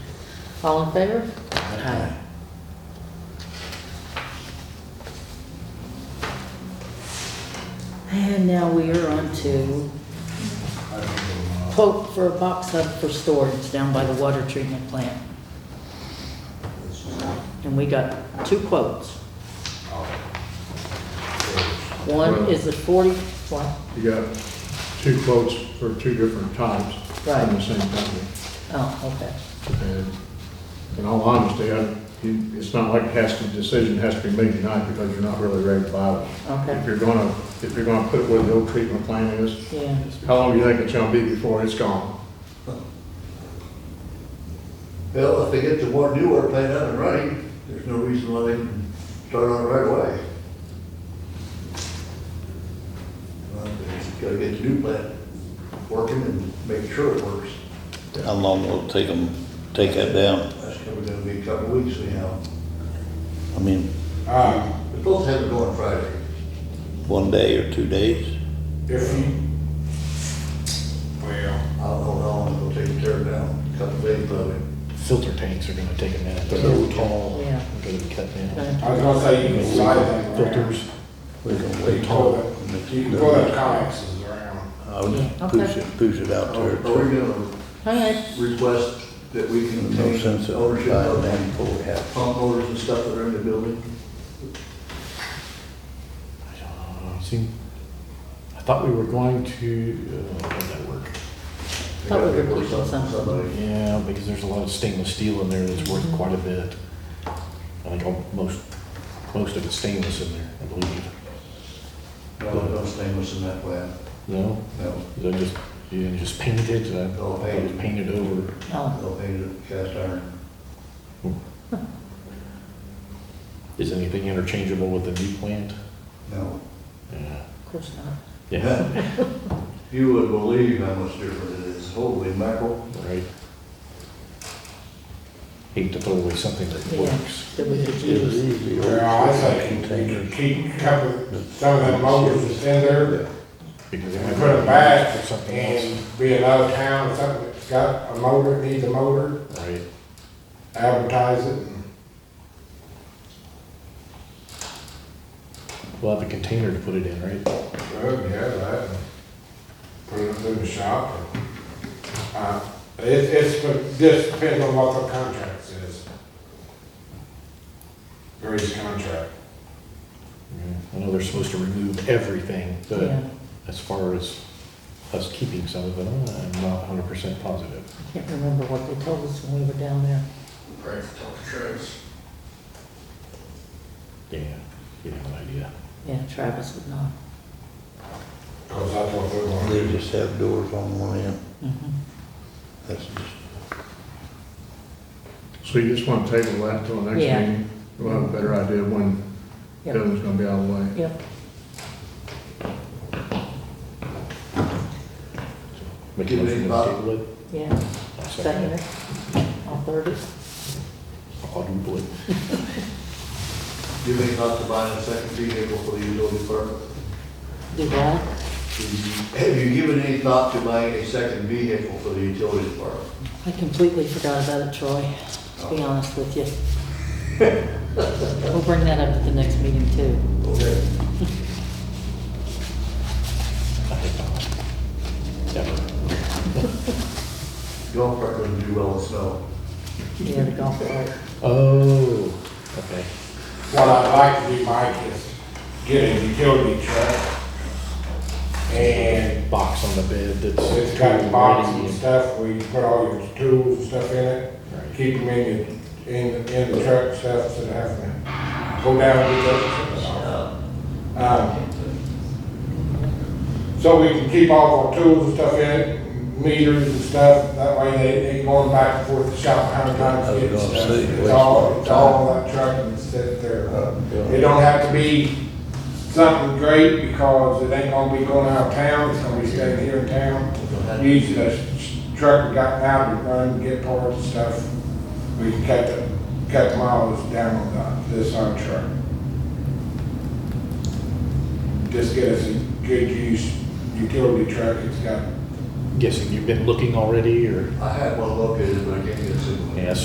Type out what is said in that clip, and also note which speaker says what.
Speaker 1: All in favor?
Speaker 2: Aye.
Speaker 1: And now we are on to quote for a box hub for storage down by the water treatment plant. And we got two quotes. One is a forty, one,
Speaker 3: You got two quotes for two different types from the same company.
Speaker 1: oh, okay.
Speaker 3: And in all honesty, I, you- it's not like it has to, decision has to be made tonight because you're not really ready to buy them.
Speaker 1: Okay.
Speaker 3: If you're gonna, if you're gonna put it where the old treatment plant is,
Speaker 1: Yeah,
Speaker 3: how long do you think it's gonna be before it's gone?
Speaker 2: Well, if they get the one new water plant up and running, there's no reason why they can start on it right away. Well, they just Gotta get the new plant working and make sure it works.
Speaker 4: How long will it take them, take that down?
Speaker 2: That's probably gonna be a couple of weeks anyhow.
Speaker 4: I mean,
Speaker 2: We're supposed to have it going Friday.
Speaker 4: one day or two days?
Speaker 5: If you,
Speaker 2: I
Speaker 5: well,
Speaker 2: don't know how long it'll take to tear it down, a couple of days probably.
Speaker 6: filter tanks are gonna take a minute, they're really tall,
Speaker 1: Yeah.
Speaker 6: they're gonna be cut down.
Speaker 1: gonna-
Speaker 5: I was gonna say you can slide them around.
Speaker 6: Filters,
Speaker 4: We're gonna
Speaker 5: You
Speaker 4: wait
Speaker 5: can pull
Speaker 4: till,
Speaker 5: it, you can pull them connexes around.
Speaker 4: I'll just
Speaker 1: Yeah,
Speaker 4: push
Speaker 1: okay.
Speaker 4: it, push it out
Speaker 2: Are
Speaker 4: there.
Speaker 2: are we gonna
Speaker 1: all right,
Speaker 2: request that we can
Speaker 4: There's No sense
Speaker 2: take
Speaker 4: of
Speaker 2: ownership
Speaker 4: buying
Speaker 2: of
Speaker 4: land before we have.
Speaker 2: pump motors and stuff that are in the building?
Speaker 6: Uh, see, I thought we were going to, uh, how'd that work?
Speaker 2: They
Speaker 1: Thought we
Speaker 2: gotta
Speaker 1: were
Speaker 2: be worth
Speaker 1: pushing something.
Speaker 2: Somebody.
Speaker 6: Yeah, because there's a lot of stainless steel in there that's worth quite a bit. I think al- most, most of it's stainless in there, I believe.
Speaker 2: No, no stainless in that plant,
Speaker 6: No,
Speaker 2: no,
Speaker 6: is that just, you just painted it, I thought it was painted over.
Speaker 1: oh,
Speaker 2: no painted cast iron.
Speaker 6: Is anything interchangeable with the new plant?
Speaker 2: No.
Speaker 6: Yeah,
Speaker 1: of course not.
Speaker 6: yeah,
Speaker 2: You would believe how much different it is, holy mackerel.
Speaker 6: right. Hate to throw away something that
Speaker 1: Yeah.
Speaker 6: works.
Speaker 1: That we could
Speaker 4: It's
Speaker 1: use,
Speaker 4: easy.
Speaker 5: Well, I think you can keep a couple, some of them motors that's in there
Speaker 6: Because
Speaker 5: and put them back and be another town or something that's got a motor, needs a motor,
Speaker 6: Right.
Speaker 5: advertise it. and-
Speaker 6: We'll have a container to put it in, right?
Speaker 5: Oh, yeah, that. and Put it through the shop. and, Uh, it's, it's, but this depends on what the contract says. Grady's contract.
Speaker 6: I know they're supposed to remove everything, but
Speaker 1: yeah,
Speaker 6: as far as us keeping some of it, I'm not hundred percent positive.
Speaker 1: can't remember what they told us when we were down there.
Speaker 5: Right, talk to Travis.
Speaker 6: Yeah, you have an idea.
Speaker 1: Yeah, Travis would not.
Speaker 5: Cause that's what they're gonna
Speaker 4: They
Speaker 5: do.
Speaker 4: just have doors on one end.
Speaker 1: Mhm.
Speaker 4: That's just,
Speaker 3: So you just want to table that till the next
Speaker 1: Yeah.
Speaker 3: meeting? We'll have a better idea when the
Speaker 1: Yep.
Speaker 3: other one's gonna be out of the way.
Speaker 1: Yep,
Speaker 6: Make a
Speaker 2: Give it
Speaker 6: motion
Speaker 2: a
Speaker 6: to
Speaker 2: thought.
Speaker 6: table it.
Speaker 1: yeah,
Speaker 6: I'll second
Speaker 1: second
Speaker 6: it.
Speaker 1: it, all third it.
Speaker 6: I'll quadruple it.
Speaker 2: You may not to buy a second vehicle for the utility department.
Speaker 1: do that.
Speaker 2: Have you given any thought to buying a second vehicle for the utility department?
Speaker 1: I completely forgot about it, Troy, to be honest with you. We'll bring that up at the next meeting too.
Speaker 2: Okay.
Speaker 6: I think not. Never.
Speaker 2: Golf cart doesn't do well in snow.
Speaker 1: Yeah, the golf cart.
Speaker 6: Oh, okay.
Speaker 5: What I'd like to do, Mike, is get a utility truck and
Speaker 6: Box on the bed that's.
Speaker 5: it's got boxes and
Speaker 6: ready.
Speaker 5: stuff where you put all your tools and stuff in it.
Speaker 6: Right.
Speaker 5: Keep them in the, in, the- in the truck and stuff instead of having to go down and do that. Um, So we can keep all our tools and stuff in it, meters and stuff, that way they, they going back and forth to shop a hundred
Speaker 4: I
Speaker 5: times
Speaker 4: was
Speaker 5: getting
Speaker 4: gonna
Speaker 5: stuff.
Speaker 4: say,
Speaker 5: It's
Speaker 4: waste
Speaker 5: all, it's
Speaker 4: time.
Speaker 5: all in that truck and sit there. It don't have to be something great because it ain't gonna be going out of town, it's gonna be staying here in town. Use the s- truck we got now to run, get parts and stuff. We can cut the, cut miles down on the- this on truck. Just get us a good use utility truck, it's got
Speaker 6: Guessing you've been looking already or?
Speaker 2: I had one located, but I can't get a single.
Speaker 6: Yeah,